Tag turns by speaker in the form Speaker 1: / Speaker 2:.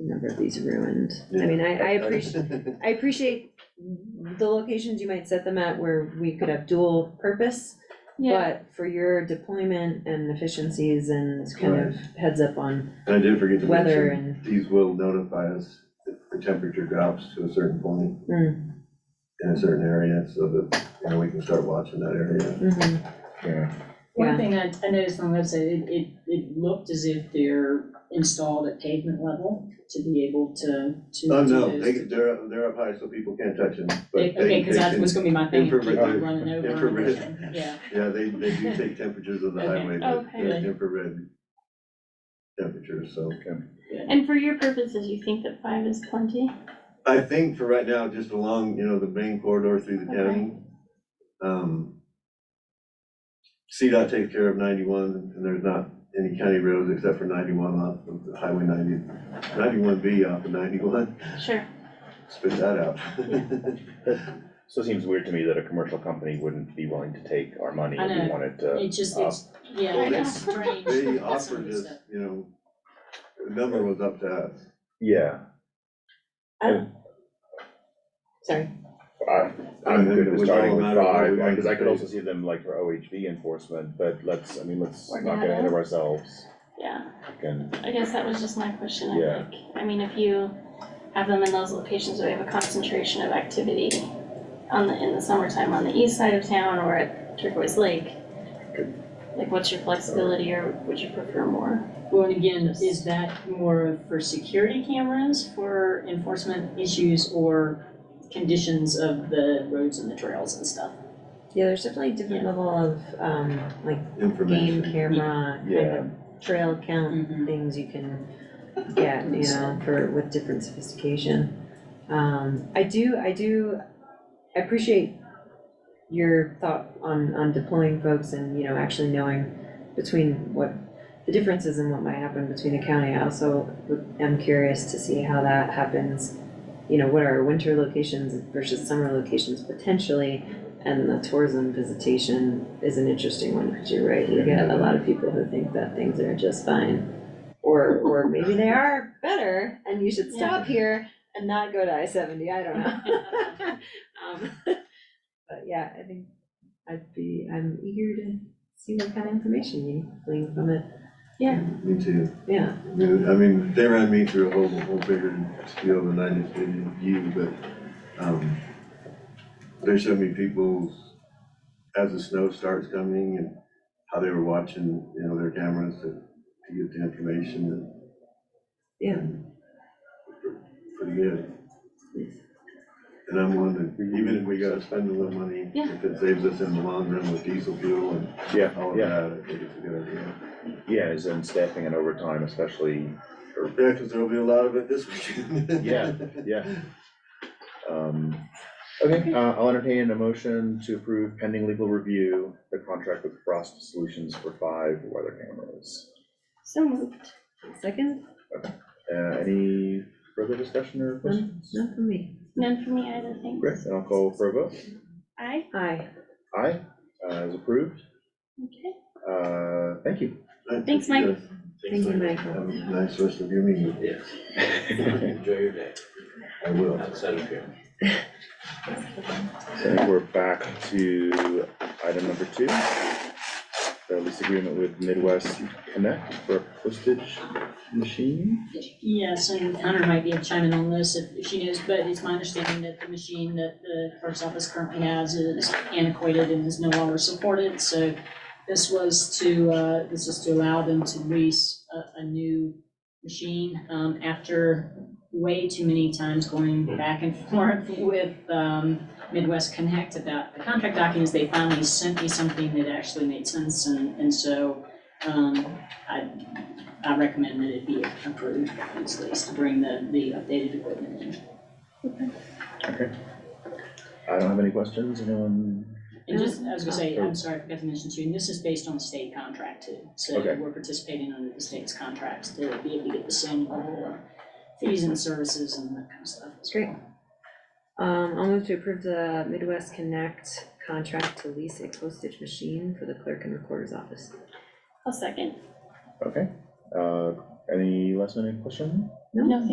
Speaker 1: number of these ruined. I mean, I, I appreciate, I appreciate the locations you might set them at where we could have dual purpose.
Speaker 2: Yeah,
Speaker 1: But for your deployment and efficiencies and kind of heads up on
Speaker 3: And I did forget to
Speaker 1: weather
Speaker 3: mention,
Speaker 1: and,
Speaker 3: these will notify us if the temperature drops to a certain point
Speaker 1: mm,
Speaker 3: in a certain area, so that, you know, we can start watching that area.
Speaker 1: mhm,
Speaker 3: Yeah.
Speaker 1: yeah.
Speaker 4: One thing I, I noticed on the website, it, it, it looked as if they're installed at pavement level to be able to, to.
Speaker 3: Oh,
Speaker 4: do
Speaker 3: no,
Speaker 4: those.
Speaker 3: they, they're, up- they're up high, so people can't touch them,
Speaker 4: They-
Speaker 3: but they,
Speaker 4: Okay,
Speaker 3: they
Speaker 4: cause that was
Speaker 3: can,
Speaker 4: gonna be my thing, people
Speaker 3: infrared-
Speaker 4: running over. and
Speaker 3: infrared.
Speaker 4: everything. Yeah,
Speaker 3: yeah, they, they do take temperatures of the
Speaker 4: Okay.
Speaker 3: highway,
Speaker 1: Oh,
Speaker 3: but
Speaker 2: Okay.
Speaker 3: they're infrared temperatures, so.
Speaker 2: and for your purposes, you think that five is plenty?
Speaker 3: I think for right now, just along, you know, the main corridor through the county, um, CDOT takes care of ninety-one, and there's not any county roads except for ninety-one off of Highway 90, 91 B off of ninety-one,
Speaker 2: Sure.
Speaker 3: spit that out.
Speaker 5: So it seems weird to me that a commercial company wouldn't be willing to take our money
Speaker 4: I
Speaker 5: if we
Speaker 4: know.
Speaker 5: wanted to.
Speaker 4: it's just, it's, yeah,
Speaker 2: Well,
Speaker 4: it's
Speaker 2: they-
Speaker 4: strange.
Speaker 3: They
Speaker 4: That's some of
Speaker 3: offered
Speaker 4: the
Speaker 3: this,
Speaker 4: stuff.
Speaker 3: you know, the number was up to us.
Speaker 5: Yeah,
Speaker 1: Sorry,
Speaker 5: I, I'm
Speaker 3: And then
Speaker 5: good
Speaker 3: it
Speaker 5: with
Speaker 3: was all
Speaker 5: starting
Speaker 3: a
Speaker 5: with
Speaker 3: matter of what
Speaker 5: five,
Speaker 3: we wanted
Speaker 5: because I
Speaker 3: to
Speaker 5: could
Speaker 3: pay.
Speaker 5: also see them like for OHV enforcement, but let's, I mean, let's
Speaker 2: Or
Speaker 5: not get ahead of ourselves.
Speaker 2: Yeah,
Speaker 5: And,
Speaker 2: I guess that was just my question, I
Speaker 5: Yeah.
Speaker 2: think. I mean, if you have them in those locations where we have a concentration of activity on the, in the summertime on the east side of town or at Turquoise Lake, like what's your flexibility or would you prefer more?
Speaker 4: Well, and again, is that more of for security cameras, for enforcement issues, or conditions of the roads and the trails and stuff?
Speaker 1: yeah, there's definitely a different level of, um, like game
Speaker 3: Information.
Speaker 1: camera, kind
Speaker 5: yeah,
Speaker 1: of trail count
Speaker 4: Mhm.
Speaker 1: things you can get, you know, for, with different sophistication. Um, I do, I do, I appreciate your thought on, on deploying folks and, you know, actually knowing between what the differences and what might happen between the county. I also would- am curious to see how that happens. You know, what are winter locations versus summer locations potentially? And the tourism visitation is an interesting one, because you're right, you get a lot of people who think that things are just fine. Or, or maybe they are better, and you should stop here and not go to I seventy, I don't know. Um, But yeah, I think I'd be, I'm eager to see what kind of information you glean from it,
Speaker 3: Me too.
Speaker 1: yeah.
Speaker 3: I mean, I mean, they ran me through a whole, whole bigger deal than I just did you, but, um, they showed me people's, as the snow starts coming and how they were watching, you know, their cameras to, to get the information and.
Speaker 1: Yeah.
Speaker 3: Pretty good. And I'm wondering, even if we gotta spend a little money,
Speaker 2: Yeah.
Speaker 3: if it saves us in the long run with diesel fuel and all
Speaker 5: yeah,
Speaker 3: of
Speaker 5: yeah,
Speaker 3: that, I think it's a good idea.
Speaker 5: yeah, as in staffing and overtime especially,
Speaker 3: Yeah, because there'll be a lot of it this weekend.
Speaker 5: Yeah. yeah. Um, okay, uh, I'll entertain a motion to approve pending legal review, the contract with Frost Solutions for five weather cameras.
Speaker 2: So moved.
Speaker 1: Second,
Speaker 5: Uh, any further discussion or questions?
Speaker 1: not for me.
Speaker 2: None for me either, thanks.
Speaker 5: Great, and I'll call for a vote.
Speaker 2: Aye,
Speaker 1: Aye.
Speaker 5: Aye, uh, is approved.
Speaker 2: okay.
Speaker 5: Uh, thank you.
Speaker 2: Thanks, Mike.
Speaker 1: Thank you, Michael.
Speaker 3: Have a nice rest of your meeting.
Speaker 6: Yes, enjoy your day
Speaker 3: I will.
Speaker 6: outside of here.
Speaker 5: So we're back to item number two. The lease agreement with Midwest Connect for a postage machine.
Speaker 4: Yes, and Hunter might be chiming on this if if she knows, but it's my understanding that the machine that the clerk's office currently has is antiquated and is no longer supported, so this was to, uh, this is to allow them to lease a, a new machine, um, after way too many times going back and forth with, um, Midwest Connect about the contract documents, they finally sent me something that actually made sense, and, and so, um, I, I recommend that it be approved, at least to bring the, the updated equipment in.
Speaker 5: I don't have any questions, anyone?
Speaker 4: And just, I was gonna say, I'm sorry, I forgot to mention too, and this is based on state contract too. So
Speaker 5: Okay.
Speaker 4: we're participating under the state's contracts to be able to get the same level of fees and services and that kind of stuff.
Speaker 1: That's great. Um, I'll move to approve the Midwest Connect contract to lease a postage machine for the clerk and recorder's office.
Speaker 2: I'll second.
Speaker 5: Okay, uh, any last minute question?
Speaker 2: No, thank